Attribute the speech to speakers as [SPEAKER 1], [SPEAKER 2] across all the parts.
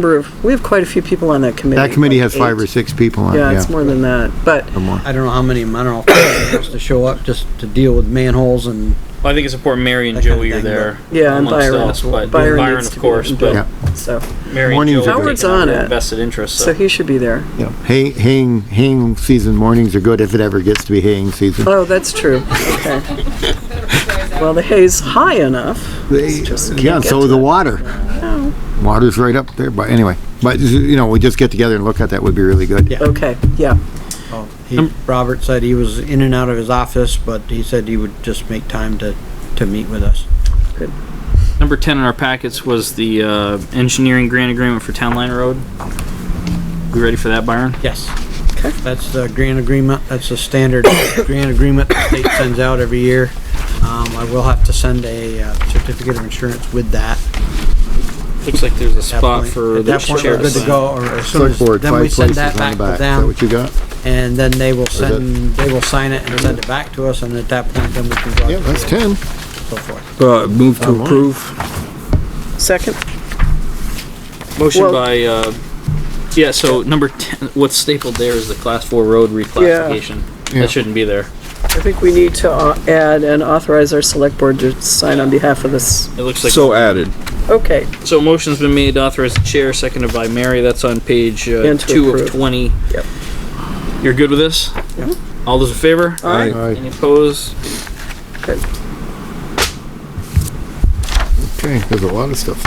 [SPEAKER 1] number of, we have quite a few people on that committee.
[SPEAKER 2] That committee has
[SPEAKER 1] like
[SPEAKER 2] five
[SPEAKER 1] eight.
[SPEAKER 2] or six people on it, yeah.
[SPEAKER 1] Yeah, it's more than that, but
[SPEAKER 2] Or more.
[SPEAKER 3] I don't know how many, I don't know, if wants to show up just to deal with manholes and
[SPEAKER 4] Well, I think it's important Mary and
[SPEAKER 3] That kinda
[SPEAKER 4] Joey are
[SPEAKER 3] thing,
[SPEAKER 4] there.
[SPEAKER 1] yeah, and
[SPEAKER 4] amongst
[SPEAKER 1] Byron,
[SPEAKER 4] us, but
[SPEAKER 1] Byron
[SPEAKER 4] Byron,
[SPEAKER 1] needs
[SPEAKER 4] of
[SPEAKER 1] to
[SPEAKER 4] course,
[SPEAKER 1] be
[SPEAKER 4] but
[SPEAKER 1] involved, so,
[SPEAKER 4] Mary and
[SPEAKER 2] Mornings
[SPEAKER 4] Joey
[SPEAKER 2] are
[SPEAKER 4] are
[SPEAKER 2] good.
[SPEAKER 1] Howard's
[SPEAKER 4] taking
[SPEAKER 1] on
[SPEAKER 4] on
[SPEAKER 1] it.
[SPEAKER 4] it. vested interest.
[SPEAKER 1] so
[SPEAKER 4] So,
[SPEAKER 1] he should be there.
[SPEAKER 2] Yeah. Hay, haying, haying season mornings are good if it ever gets to be haying season.
[SPEAKER 1] Oh, that's true, okay. Well, the hay's high enough.
[SPEAKER 2] They-
[SPEAKER 1] just can't
[SPEAKER 2] Yeah, and
[SPEAKER 1] get
[SPEAKER 2] so
[SPEAKER 1] to
[SPEAKER 2] is the
[SPEAKER 1] it.
[SPEAKER 2] water. Water's right up there, but anyway, but, you know, we just get together and look at that would be really good.
[SPEAKER 3] Yeah.
[SPEAKER 1] Okay, yeah,
[SPEAKER 4] Um,
[SPEAKER 3] he, Robert said he was in and out of his office, but he said he would just make time to, to meet with us.
[SPEAKER 4] Number 10 in our packets was the uh, engineering grant agreement for Town Line Road. We ready for that, Byron?
[SPEAKER 3] Yes. That's the grant agreement, that's the standard grant agreement the state sends out every year. Um, I will have to send a uh, certificate of insurance with that.
[SPEAKER 4] Looks like there's a
[SPEAKER 3] At that
[SPEAKER 4] spot
[SPEAKER 3] point-
[SPEAKER 4] for
[SPEAKER 3] At
[SPEAKER 4] the
[SPEAKER 3] that point, we're
[SPEAKER 4] chair.
[SPEAKER 3] good to go, or as soon as,
[SPEAKER 2] Select board,
[SPEAKER 3] then we
[SPEAKER 2] five
[SPEAKER 3] send
[SPEAKER 2] places
[SPEAKER 3] that
[SPEAKER 2] on the
[SPEAKER 3] back to
[SPEAKER 2] back. Is that
[SPEAKER 3] them,
[SPEAKER 2] what you got?
[SPEAKER 3] and then they will
[SPEAKER 2] that-
[SPEAKER 3] send, they will sign it and send it back to us, and at that point, then we can go out
[SPEAKER 2] Yeah,
[SPEAKER 3] to
[SPEAKER 2] that's
[SPEAKER 3] bid
[SPEAKER 2] ten.
[SPEAKER 3] and so forth.
[SPEAKER 5] Uh, move to
[SPEAKER 2] Online.
[SPEAKER 5] approve.
[SPEAKER 1] second,
[SPEAKER 4] Motion
[SPEAKER 1] Well-
[SPEAKER 4] by, uh, yeah, so number 10, what's stapled there is the Class 4 road reclassification.
[SPEAKER 2] Yeah.
[SPEAKER 4] That shouldn't be there.
[SPEAKER 1] I think we need to uh, add and authorize our select board to sign on behalf of this,
[SPEAKER 4] It looks like
[SPEAKER 5] So added.
[SPEAKER 1] okay,
[SPEAKER 4] So motion's been made to authorize the chair, seconded by Mary. That's on page uh,
[SPEAKER 1] And to
[SPEAKER 4] two of
[SPEAKER 1] approve.
[SPEAKER 4] twenty.
[SPEAKER 1] Yep.
[SPEAKER 4] You're good with this?
[SPEAKER 1] Yep.
[SPEAKER 4] All those in favor?
[SPEAKER 1] Aye.
[SPEAKER 2] Aye.
[SPEAKER 4] Any opposed?
[SPEAKER 1] good.
[SPEAKER 2] Okay, there's a lot of stuff.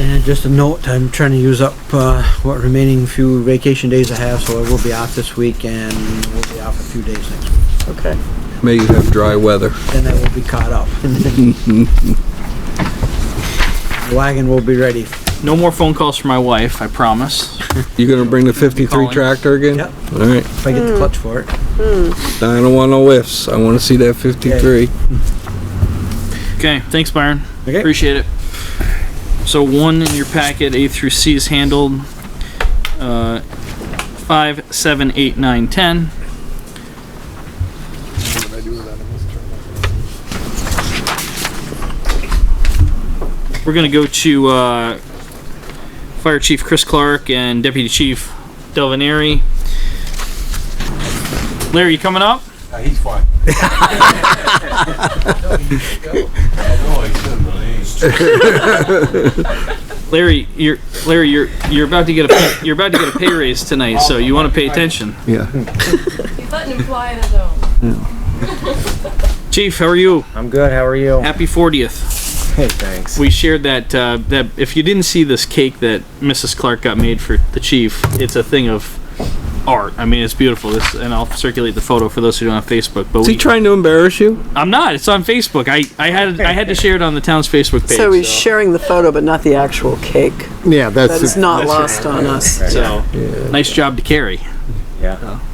[SPEAKER 3] And just a note, I'm trying to use up, uh, what remaining few vacation days I have, so I will be off this week, and we'll be off a few days next week.
[SPEAKER 1] okay.
[SPEAKER 5] May you have dry weather.
[SPEAKER 3] Then I will be caught up. Wagon will be ready.
[SPEAKER 4] No more phone calls for my wife, I promise.
[SPEAKER 5] You gonna bring the fifty-three
[SPEAKER 4] Calling.
[SPEAKER 5] tractor again?
[SPEAKER 3] Yep.
[SPEAKER 5] All right.
[SPEAKER 3] if I get
[SPEAKER 6] Hmm.
[SPEAKER 3] the clutch for it.
[SPEAKER 5] I don't want no whiffs. I wanna see that fifty-three.
[SPEAKER 4] Okay, thanks Byron.
[SPEAKER 3] Okay.
[SPEAKER 4] Appreciate it. So one in your packet, A through C is handled. Uh, five, seven, eight, nine, ten. We're gonna go to uh, Fire Chief Chris Clark and Deputy Chief Delvaneri. Larry, you coming up?
[SPEAKER 7] he's fine.
[SPEAKER 4] Larry, you're Larry, you're you're about to get a pay, you're about to get a pay raise tonight, so you want to pay attention.
[SPEAKER 2] Yeah.
[SPEAKER 8] He's letting him fly in his own.
[SPEAKER 4] Chief, how are you?
[SPEAKER 6] I'm good. How are you?
[SPEAKER 4] Happy 40th.
[SPEAKER 6] Hey, thanks.
[SPEAKER 4] We shared that uh, that if you didn't see this cake that Mrs. Clark got made for the chief, it's a thing of art. I mean, it's beautiful. This, and I'll circulate the photo for those who don't have Facebook. But
[SPEAKER 5] Is he
[SPEAKER 4] we,
[SPEAKER 5] trying to embarrass you?
[SPEAKER 4] I'm not. It's on Facebook. I, I had I had to share it on the town's Facebook page. uh,
[SPEAKER 1] So he's sharing the photo, but not the actual cake.
[SPEAKER 2] Yeah, that's.
[SPEAKER 1] That is not lost on us.
[SPEAKER 4] so nice job to carry.
[SPEAKER 6] Yeah.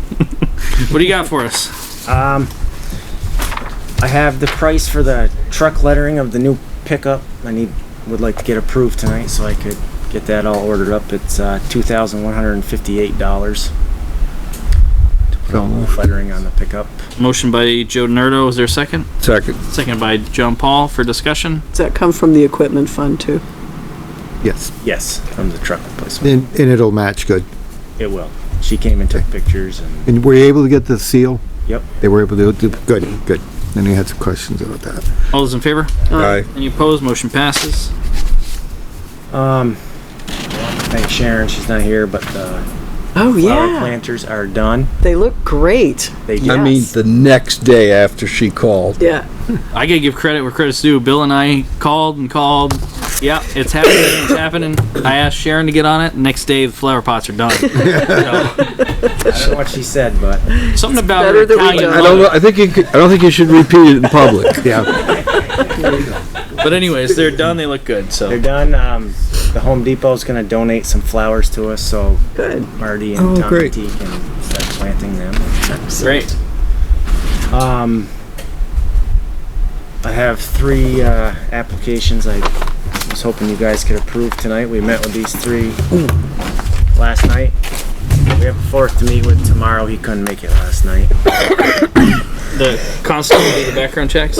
[SPEAKER 4] What do you got for us?
[SPEAKER 6] I have the price for the truck lettering of the new pickup. I need would like to get approved tonight so I could get that all ordered up. It's uh, two thousand one hundred and fifty-eight dollars. To put on the lettering on the pickup.
[SPEAKER 4] Motion by Joe Nerdo. Is there a second?
[SPEAKER 5] Second.
[SPEAKER 4] Second by John Paul for discussion.
[SPEAKER 1] Does that come from the equipment fund too?
[SPEAKER 2] Yes,
[SPEAKER 6] Yes, from the truck replacement.
[SPEAKER 2] and, and it'll match good.
[SPEAKER 6] It will. She came and took pictures and
[SPEAKER 2] And were you able to get the seal?
[SPEAKER 6] Yep.
[SPEAKER 2] They were able to, do good, good. Then you had some questions about that.
[SPEAKER 4] All those in favor?
[SPEAKER 5] Aye.
[SPEAKER 4] Any opposed? Motion passes.
[SPEAKER 6] um. Thanks Sharon. She's not here, but the
[SPEAKER 1] Oh,
[SPEAKER 6] flower
[SPEAKER 1] yeah.
[SPEAKER 6] planters are done.
[SPEAKER 1] They look great.
[SPEAKER 6] They
[SPEAKER 5] I mean,
[SPEAKER 1] Yes.
[SPEAKER 5] the next day after she called.
[SPEAKER 1] Yeah.
[SPEAKER 4] I gotta give credit where credit's due. Bill and I called and called. Yeah, it's happening. It's happening. I asked Sharon to get on it. Next day, the flower pots are done. So,
[SPEAKER 6] I don't know what she said, but
[SPEAKER 4] something about
[SPEAKER 1] better
[SPEAKER 4] her
[SPEAKER 1] that we
[SPEAKER 4] Italian
[SPEAKER 5] I don't know,
[SPEAKER 4] mother.
[SPEAKER 5] I think you could, I don't think you should repeat it in public.
[SPEAKER 2] Yeah,
[SPEAKER 4] But anyways, they're done. They look good.
[SPEAKER 6] They're
[SPEAKER 4] So
[SPEAKER 6] done. Um, the Home Depot's gonna donate some flowers to us, so
[SPEAKER 1] Good.
[SPEAKER 6] Marty and
[SPEAKER 2] Oh,
[SPEAKER 6] Tom
[SPEAKER 2] great.
[SPEAKER 6] T can start planting them.
[SPEAKER 4] great.
[SPEAKER 6] Um, I have three uh, applications I was hoping you guys could approve tonight. We met with these three last night. We have a fourth to meet with tomorrow. He couldn't make it last night.
[SPEAKER 4] the constantly do the background checks?